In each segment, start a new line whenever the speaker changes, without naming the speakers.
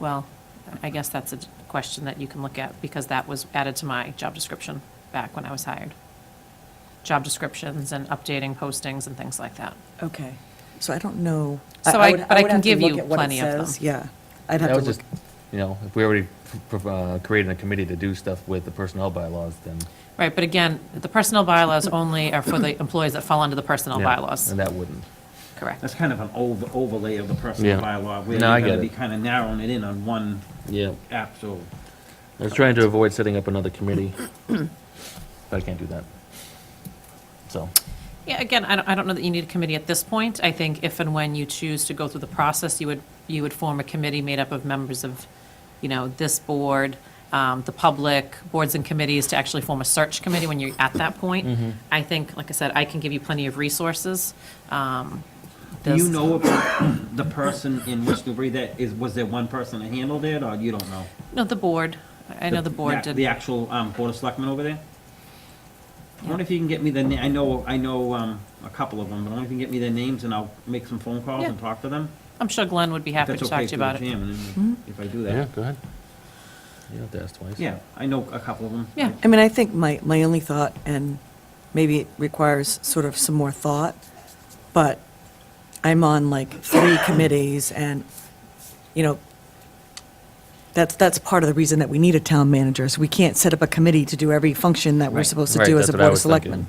Well, I guess that's a question that you can look at, because that was added to my job description back when I was hired. Job descriptions and updating postings and things like that.
Okay, so I don't know.
So I-
would-
but I
would
can
have to
give
look
you
at what it
plenty of them.
says. Yeah, I'd have
That
to
was just,
look.
you know, if we already pr- uh, created a committee to do stuff with the personnel bylaws, then.
Right, but again, the personnel bylaws only are for the employees that fall under the personnel
yeah,
bylaws.
And that wouldn't.
Correct.
That's kind of an over- overlay of the personal
Yeah.
bylaw, where you're
No, I
gonna
get
be
it.
kind of narrowing it in on one
Yeah.
app, so.
I was trying to avoid setting up another committee, but I can't do that. So,
Yeah, again, I don't, I don't know that you need a committee at this point. I think if and when you choose to go through the process, you would, you would form a committee made up of members of, you know, this board, um, the public, boards and committees to actually form a search committee when you're at that
Mm-hmm.
point. I think, like I said, I can give you plenty of resources. Um,
Do you
there's-
know about the person in West Newbury that is, was there one person that handled it, or you don't know?
No, the board. I know the board
The- The
did.
actual um, Board of Selectmen over there? I wonder if you can get me the, na- I know, I know um, a couple of them, but I wonder if you can get me their names, and I'll make some phone calls
Yeah.
and talk to them?
I'm sure Glenn would be
If
happy
that's
to talk
okay
to you
through the
about it. Mm-hmm.
chairman, and If I do
yeah,
that.
go ahead. You don't have to ask twice.
Yeah, I know a couple of them.
Yeah.
I mean, I think my, my only thought, and maybe it requires sort of some more thought, but I'm on like three committees and, you know, that's, that's part of the reason that we need a town manager, is we can't set up a committee to do every function that we're
Right.
supposed to
Right,
do as a
that's what I
board of
was
selectmen.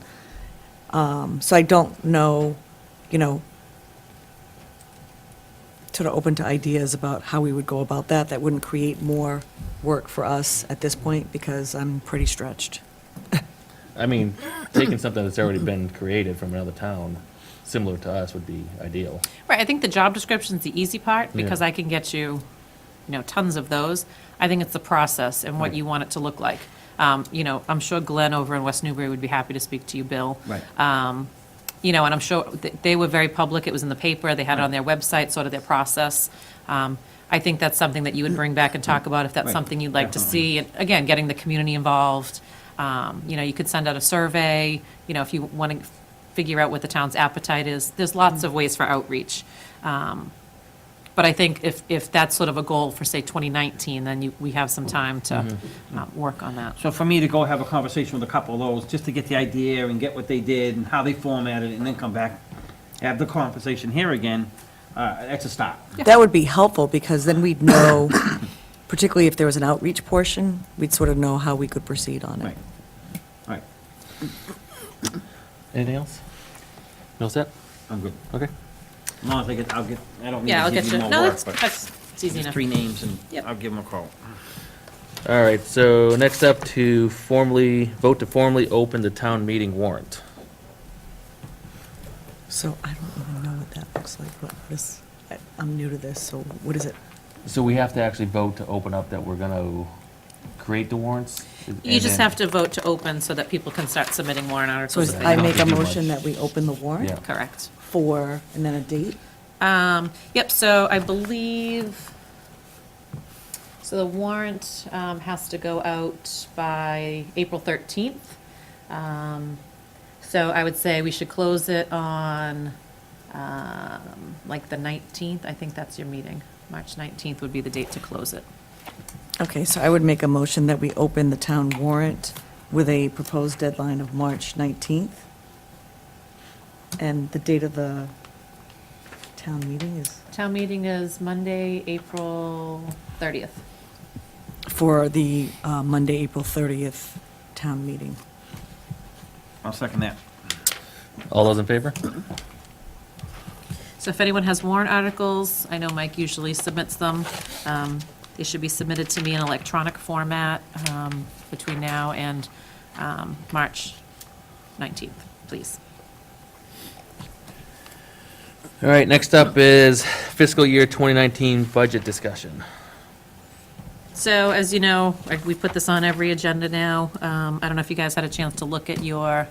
Um, So I don't know, you know, sort of open to ideas about how we would go about that. That wouldn't create more work for us at this point because I'm pretty stretched.
I mean, taking something that's already been created from another town, similar to us, would be ideal.
Right, I think the job description's the easy part,
Yeah.
because I can get you, you know, tons of those. I think it's the process and what
Right.
you want it to look like. Um, You know, I'm sure Glenn over in West Newbury would be happy to speak to you, Bill.
Right.
Um, You know, and I'm sure, th- they were very public, it was in the paper, they had it on their website, sort of their process. Um, I think that's something that you would bring back and talk about, if that's
Right,
something you'd like to
definitely.
see. And Again, getting the community involved, Um, you know, you could send out a survey, you know, if you want to figure out what the town's appetite is. There's lots of ways for outreach. Um, But I think if, if that's sort of a goal for, say, 2019, then you, we have some time to
Mm-hmm.
uh, work on that.
So for me to go have a conversation with a couple of those, just to get the idea and get what they did and how they formatted it, and then come back, have the conversation here again, uh, that's a start.
That would be helpful because then we'd know, particularly if there was an outreach portion, we'd sort of know how we could proceed on it.
Right, right,
Anything else? You all set?
I'm good.
Okay.
As long as I get, I'll get, I don't mean
Yeah, I'll
to
get
give
you,
you more
no,
work,
that's,
but
that's it's easy
just
enough.
three names and
Yep.
I'll give them a call.
All right, so next up to formally, vote to formally open the town meeting warrant.
So I don't even know what that looks like, but this, I- I'm new to this, so what is it?
So we have to actually vote to open up that we're gonna create the warrants?
You just have to vote to open so that people can start submitting warrant
So
articles.
is-
if they
I
don't.
make a
Not to do
motion
much.
that we open the warrant
Yeah.
Correct.
for, and then a date?
Um, Yep, so I believe, so the warrant um, has to go out by April 13th. Um, So I would say we should close it on um, like the 19th. I think that's your meeting. March 19th would be the date to close it.
Okay, so I would make a motion that we open the town warrant with a proposed deadline of March 19th. And the date of the town meeting is
Town meeting is Monday, April 30th.
for the uh, Monday, April 30th town meeting.
I'll second that.
All those in favor?
So if anyone has warrant articles, I know Mike usually submits them. Um, They should be submitted to me in electronic format um, between now and um, March 19th, please.
All right, next up is fiscal year 2019 budget discussion.
So as you know, like, we put this on every agenda now. Um, I don't know if you guys had a chance to look at your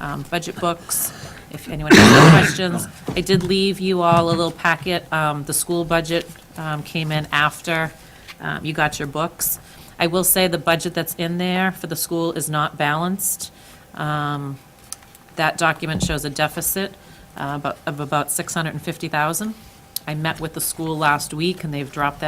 um, budget books, if anyone has any questions. I did leave you all a little packet. Um, The school budget um, came in after um, you got your books. I will say the budget that's in there for the school is not balanced. Um, That document shows a deficit uh, about- of about 650,000. I met with the school last week, and they've dropped that